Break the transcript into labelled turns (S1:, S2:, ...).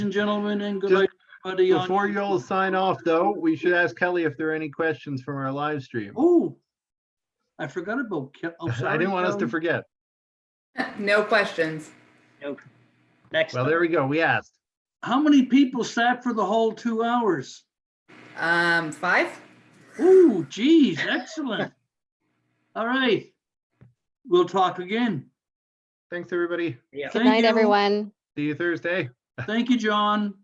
S1: and gentlemen, and good night, everybody. on
S2: Before you all
S1: YouTube.
S2: sign off, though, we should ask Kelly if there are any questions from our live stream.
S1: Oh, I forgot about. Ke- oh,
S2: I
S1: sorry,
S2: didn't want us to
S1: Kelly.
S2: forget.
S3: No questions.
S4: Next
S2: Well,
S4: time.
S2: there we go. We asked.
S1: How many people sat for the whole two hours?
S3: Um, five?
S1: Ooh, geez, excellent. All right. We'll talk again.
S2: Thanks, everybody.
S4: Yeah.
S5: Good
S1: Thank
S5: night,
S1: you.
S5: everyone.
S2: See you Thursday.
S1: Thank you, John.